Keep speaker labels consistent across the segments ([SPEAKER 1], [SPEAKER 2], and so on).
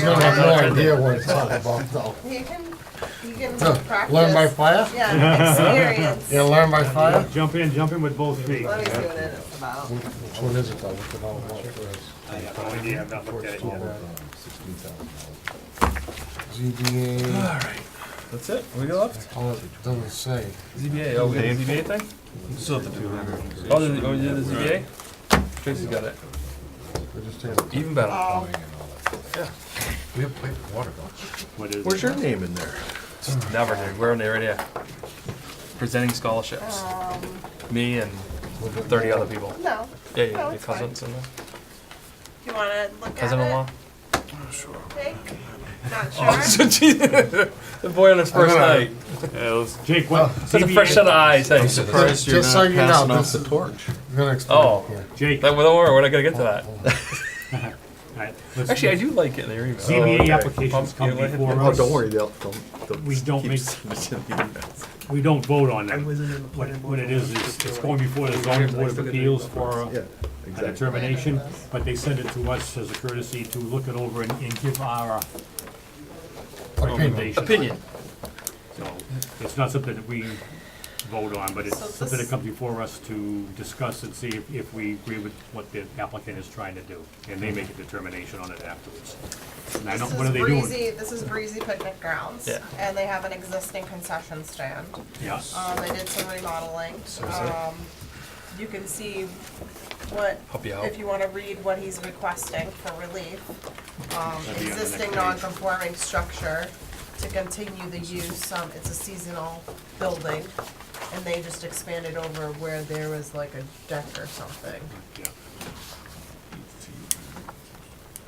[SPEAKER 1] You don't have no idea what it's all about, though.
[SPEAKER 2] You can, you can practice.
[SPEAKER 1] Learn by fire?
[SPEAKER 2] Yeah, experience.
[SPEAKER 1] You learn by fire?
[SPEAKER 3] Jump in, jump in with both feet.
[SPEAKER 2] Let me see what it is about.
[SPEAKER 1] Which one is it, though? Look at all about first.
[SPEAKER 3] I have no idea, I've not looked at it yet.
[SPEAKER 1] ZBA,
[SPEAKER 4] That's it? We got left?
[SPEAKER 1] oh, it doesn't say.
[SPEAKER 4] ZBA, oh, we got the ZBA thing? Still have to do. Oh, did, oh, you did the ZBA? Tracy's got it.
[SPEAKER 1] We're just having-
[SPEAKER 4] Even better.
[SPEAKER 2] Oh,
[SPEAKER 1] We have plenty of water, though.
[SPEAKER 3] What is
[SPEAKER 4] Where's
[SPEAKER 3] it?
[SPEAKER 4] your name in there? Just never, dude. We're in there right here. Presenting scholarships.
[SPEAKER 2] um,
[SPEAKER 4] Me and thirty other people.
[SPEAKER 2] no.
[SPEAKER 4] Yeah, yeah,
[SPEAKER 2] No,
[SPEAKER 4] your
[SPEAKER 2] it's fine.
[SPEAKER 4] cousins and
[SPEAKER 2] You wanna look at it?
[SPEAKER 4] cousin-in-law.
[SPEAKER 2] Jake? Not
[SPEAKER 4] Oh.
[SPEAKER 2] sure?
[SPEAKER 4] the boy on his first
[SPEAKER 1] gonna-
[SPEAKER 4] night.
[SPEAKER 3] Uh, let's- Jake, what,
[SPEAKER 4] Such a Oh, fresh set
[SPEAKER 3] ZBA,
[SPEAKER 4] of eyes. Hey.
[SPEAKER 5] Surprised you're
[SPEAKER 1] Just so
[SPEAKER 5] not
[SPEAKER 1] you know,
[SPEAKER 5] uh, passing off
[SPEAKER 1] this
[SPEAKER 5] the
[SPEAKER 1] is-
[SPEAKER 5] torch.
[SPEAKER 1] I'm gonna explain
[SPEAKER 4] Oh.
[SPEAKER 1] it here.
[SPEAKER 3] Jake,
[SPEAKER 4] That, well, don't worry, we're not gonna get to that.
[SPEAKER 3] alright, let's-
[SPEAKER 4] Actually, I do Oh, like it in your email.
[SPEAKER 3] ZBA
[SPEAKER 4] okay.
[SPEAKER 3] applications
[SPEAKER 4] Pump,
[SPEAKER 3] come
[SPEAKER 4] you know,
[SPEAKER 3] before
[SPEAKER 4] hit-
[SPEAKER 5] Oh,
[SPEAKER 3] us.
[SPEAKER 5] don't worry, they'll, they'll- they'll
[SPEAKER 3] We don't
[SPEAKER 5] keep
[SPEAKER 3] make-
[SPEAKER 5] sending you emails.
[SPEAKER 3] We don't vote on them.
[SPEAKER 6] wasn't in the
[SPEAKER 3] What,
[SPEAKER 6] planning board.
[SPEAKER 3] what it is, is it's going before the zoning board of appeals for
[SPEAKER 5] Yeah,
[SPEAKER 3] a a
[SPEAKER 5] exactly.
[SPEAKER 3] determination, but they send it to us as a courtesy to look it over and, and give our
[SPEAKER 1] Opinion.
[SPEAKER 3] recommendation.
[SPEAKER 4] Opinion.
[SPEAKER 3] So, it's not something that we vote on, but it's
[SPEAKER 2] So
[SPEAKER 3] something that
[SPEAKER 2] this-
[SPEAKER 3] comes before us to discuss and see if, if we agree with what the applicant is trying to do, and they make a determination on it afterwards. And I don't,
[SPEAKER 2] This
[SPEAKER 3] what
[SPEAKER 2] is
[SPEAKER 3] are they doing?
[SPEAKER 2] Breezy, this is Breezy Picnic Grounds.
[SPEAKER 4] Yeah.
[SPEAKER 2] And they have an existing concession stand.
[SPEAKER 3] Yeah,
[SPEAKER 2] Um, they did some remodeling. Um, you can see what,
[SPEAKER 4] Help you out.
[SPEAKER 2] if you wanna read what he's requesting for relief. Um,
[SPEAKER 3] That'd be on the next
[SPEAKER 2] existing
[SPEAKER 3] page.
[SPEAKER 2] non-conforming structure to continue the use, um, it's a seasonal building. And they just expanded over where there was like a deck or something.
[SPEAKER 3] yeah.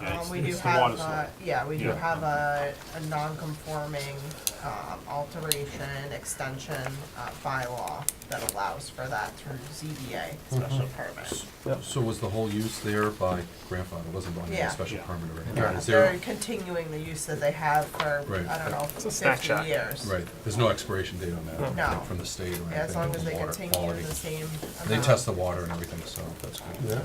[SPEAKER 3] Yeah,
[SPEAKER 2] Um,
[SPEAKER 3] it's-
[SPEAKER 2] we do
[SPEAKER 3] it's the water
[SPEAKER 2] have,
[SPEAKER 3] slide.
[SPEAKER 2] uh, yeah, we do
[SPEAKER 3] Yeah.
[SPEAKER 2] have a, a non-conforming, um, alteration, extension, uh, bylaw that allows for that through ZBA special
[SPEAKER 3] Mm-hmm.
[SPEAKER 2] permit.
[SPEAKER 5] So was the whole use there by grandfather, wasn't on
[SPEAKER 2] Yeah.
[SPEAKER 5] any special
[SPEAKER 3] Yeah.
[SPEAKER 5] permit or anything?
[SPEAKER 2] Yeah,
[SPEAKER 5] Is there,
[SPEAKER 2] They're continuing the use that they have for,
[SPEAKER 5] Right.
[SPEAKER 2] I don't know,
[SPEAKER 4] a snack
[SPEAKER 2] fifty
[SPEAKER 4] shack.
[SPEAKER 2] years.
[SPEAKER 5] right, there's no expiration date on that?
[SPEAKER 2] No.
[SPEAKER 5] From the state or anything?
[SPEAKER 2] Yeah, as long as they
[SPEAKER 5] water
[SPEAKER 2] continue
[SPEAKER 5] quality.
[SPEAKER 2] the same
[SPEAKER 5] And They
[SPEAKER 2] amount.
[SPEAKER 5] test the water and everything, so that's
[SPEAKER 1] Yeah.
[SPEAKER 5] good.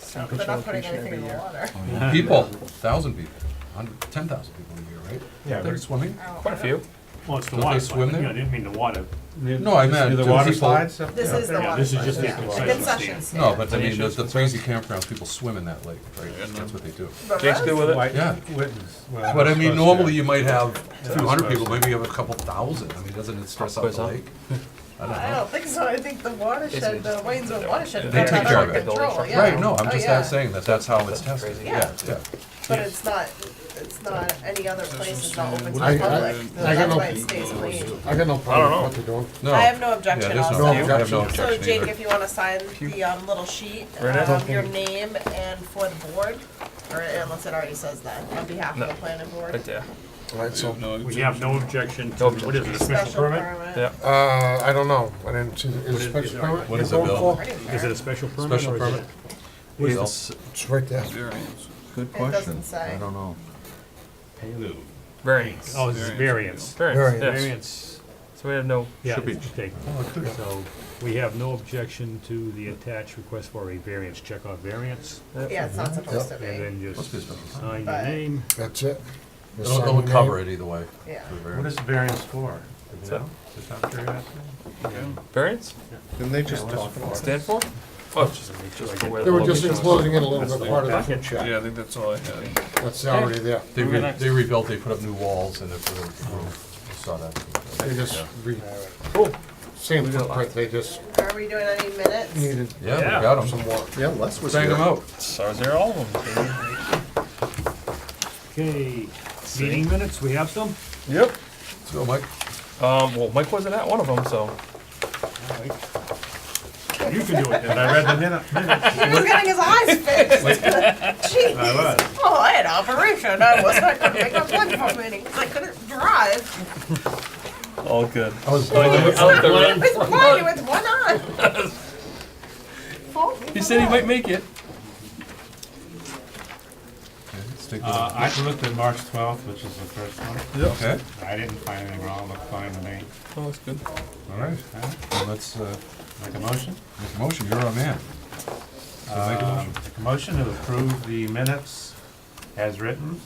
[SPEAKER 2] So They're not putting anything in the water.
[SPEAKER 5] Oh, People, thousand people, hundred, ten thousand people a year, right? Yeah. They're swimming?
[SPEAKER 2] I don't-
[SPEAKER 4] Quite a few.
[SPEAKER 3] Well, it's the
[SPEAKER 5] Don't they
[SPEAKER 3] water
[SPEAKER 5] swim
[SPEAKER 3] slide, yeah,
[SPEAKER 5] there?
[SPEAKER 3] I didn't mean the water,
[SPEAKER 5] No, I meant.
[SPEAKER 7] The
[SPEAKER 5] do
[SPEAKER 7] water
[SPEAKER 5] people-
[SPEAKER 7] slides?
[SPEAKER 2] This is the
[SPEAKER 3] yeah,
[SPEAKER 2] one.
[SPEAKER 3] this is just the
[SPEAKER 2] yeah.
[SPEAKER 3] concession stand.
[SPEAKER 2] Concession stand.
[SPEAKER 5] No, but I mean, the, the crazy campgrounds, people swim in that lake, right? That's what they do.
[SPEAKER 2] But
[SPEAKER 4] Jake's good with it.
[SPEAKER 7] Why-
[SPEAKER 5] Yeah.
[SPEAKER 7] witness. Well,
[SPEAKER 5] But I mean,
[SPEAKER 7] suppose,
[SPEAKER 5] normally
[SPEAKER 7] yeah.
[SPEAKER 5] you might have a few hundred
[SPEAKER 7] suppose.
[SPEAKER 5] people, maybe you have a couple thousand. I mean, doesn't it stress out
[SPEAKER 4] Quiz,
[SPEAKER 5] the
[SPEAKER 4] huh?
[SPEAKER 5] lake? I
[SPEAKER 2] I
[SPEAKER 5] don't
[SPEAKER 2] don't think so, I think the watershed, the Waynesville watershed.
[SPEAKER 4] They
[SPEAKER 2] got
[SPEAKER 5] take
[SPEAKER 2] that
[SPEAKER 5] care
[SPEAKER 2] under
[SPEAKER 5] of it.
[SPEAKER 2] Control,
[SPEAKER 5] know.
[SPEAKER 2] yeah.
[SPEAKER 5] Right, no, I'm
[SPEAKER 2] Oh,
[SPEAKER 5] just
[SPEAKER 2] yeah.
[SPEAKER 5] not saying that, that's how it's tested.
[SPEAKER 4] crazy.
[SPEAKER 5] Yeah, yeah.
[SPEAKER 2] But it's not, it's not, any other place is not open to the
[SPEAKER 1] I- I-
[SPEAKER 2] public, so
[SPEAKER 1] I got
[SPEAKER 2] that's
[SPEAKER 1] no-
[SPEAKER 2] why it stays clean.
[SPEAKER 1] I got no problem with what they're doing.
[SPEAKER 5] No.
[SPEAKER 2] I have no
[SPEAKER 5] Yeah,
[SPEAKER 2] objection
[SPEAKER 5] there's no,
[SPEAKER 2] also.
[SPEAKER 5] I have no
[SPEAKER 2] So
[SPEAKER 5] objection
[SPEAKER 2] Jake,
[SPEAKER 5] either.
[SPEAKER 2] if you wanna sign the, um, little sheet,
[SPEAKER 4] Right.
[SPEAKER 2] um, your name and for the board, or unless it already says that, on behalf of the planning board.
[SPEAKER 4] Right there.
[SPEAKER 1] All right, so,
[SPEAKER 3] we have no objection to,
[SPEAKER 4] No
[SPEAKER 3] what is it, a special
[SPEAKER 2] Special
[SPEAKER 3] permit?
[SPEAKER 2] permit.
[SPEAKER 4] Yeah.
[SPEAKER 1] uh, I don't know, I didn't see, the- is
[SPEAKER 3] is-
[SPEAKER 1] it special
[SPEAKER 3] is it-
[SPEAKER 1] permit?
[SPEAKER 5] what
[SPEAKER 1] you're
[SPEAKER 5] is it,
[SPEAKER 1] going
[SPEAKER 5] Bill?
[SPEAKER 1] for?
[SPEAKER 2] I didn't
[SPEAKER 3] Is
[SPEAKER 2] care.
[SPEAKER 3] it a special permit?
[SPEAKER 5] Special
[SPEAKER 3] or is it-
[SPEAKER 5] permit?
[SPEAKER 3] What is
[SPEAKER 5] They'll
[SPEAKER 3] it?
[SPEAKER 5] s-
[SPEAKER 1] It's right there.
[SPEAKER 5] Good
[SPEAKER 2] It doesn't say.
[SPEAKER 5] I don't know.
[SPEAKER 4] Variance.
[SPEAKER 3] Oh, it's variance.
[SPEAKER 4] Variance,
[SPEAKER 1] Variance.
[SPEAKER 4] yes.
[SPEAKER 3] Variance,
[SPEAKER 4] So we have no,
[SPEAKER 3] yeah,
[SPEAKER 5] Should be.
[SPEAKER 3] it's taken.
[SPEAKER 7] Oh,
[SPEAKER 3] So, we have no objection to the attached request for a variance, check off variance,
[SPEAKER 2] Yeah, it's not supposed to
[SPEAKER 3] and
[SPEAKER 2] be,
[SPEAKER 3] then
[SPEAKER 5] Must be a
[SPEAKER 3] just
[SPEAKER 5] special permit.
[SPEAKER 3] sign your
[SPEAKER 2] But-
[SPEAKER 3] name.
[SPEAKER 1] That's it. You
[SPEAKER 5] It'll,
[SPEAKER 1] sign
[SPEAKER 5] it'll
[SPEAKER 1] your
[SPEAKER 5] cover
[SPEAKER 1] name.
[SPEAKER 5] it either way.
[SPEAKER 2] yeah.
[SPEAKER 5] the
[SPEAKER 7] What
[SPEAKER 5] variance.
[SPEAKER 7] is variance for? Do you
[SPEAKER 4] So-
[SPEAKER 7] know? Just out of curiosity?
[SPEAKER 4] variance,
[SPEAKER 7] Didn't they just talk about
[SPEAKER 4] stand for? Oh, just make sure I get where
[SPEAKER 1] They
[SPEAKER 4] the
[SPEAKER 1] were just
[SPEAKER 4] location was.
[SPEAKER 1] enclosing in a little bit part of the
[SPEAKER 8] Yeah, I think that's all I had.
[SPEAKER 1] That's already there.
[SPEAKER 5] They re- they rebuilt, they put up new walls and it really grew. I saw that.
[SPEAKER 1] They just re,
[SPEAKER 4] Cool.
[SPEAKER 1] same footprint, they just
[SPEAKER 2] Are we doing any minutes?
[SPEAKER 1] needed
[SPEAKER 5] Yeah,
[SPEAKER 3] Yeah.
[SPEAKER 5] we got them.
[SPEAKER 1] some work.
[SPEAKER 5] Yeah, Les was Bang them out.
[SPEAKER 4] So I was there all of them.
[SPEAKER 3] Okay, meeting minutes, we have some?
[SPEAKER 4] Yep.
[SPEAKER 5] So Mike,
[SPEAKER 4] Um, well, Mike wasn't at one of them, so.
[SPEAKER 3] You can do it then, I read the minute.
[SPEAKER 2] He was getting his eyes fixed. Jeez. Oh, I had operation. I was, I couldn't make a blood for meeting. I couldn't drive.
[SPEAKER 4] All good.
[SPEAKER 1] I was,
[SPEAKER 4] I
[SPEAKER 1] I
[SPEAKER 4] like the- I like the
[SPEAKER 2] I
[SPEAKER 4] red-
[SPEAKER 2] was blind with one eye. Oh,
[SPEAKER 4] He said he might make it.
[SPEAKER 5] okay, let's take
[SPEAKER 7] Uh,
[SPEAKER 5] this.
[SPEAKER 7] I looked at March twelfth, which is the first one.
[SPEAKER 5] Okay,
[SPEAKER 7] I didn't find anything wrong, looked fine to me.
[SPEAKER 4] Oh, that's good.
[SPEAKER 5] all right. Well, Let's uh,
[SPEAKER 7] Make a motion?
[SPEAKER 5] make a motion. You're our man. So make a motion.
[SPEAKER 7] Um, Make a motion to approve the minutes as written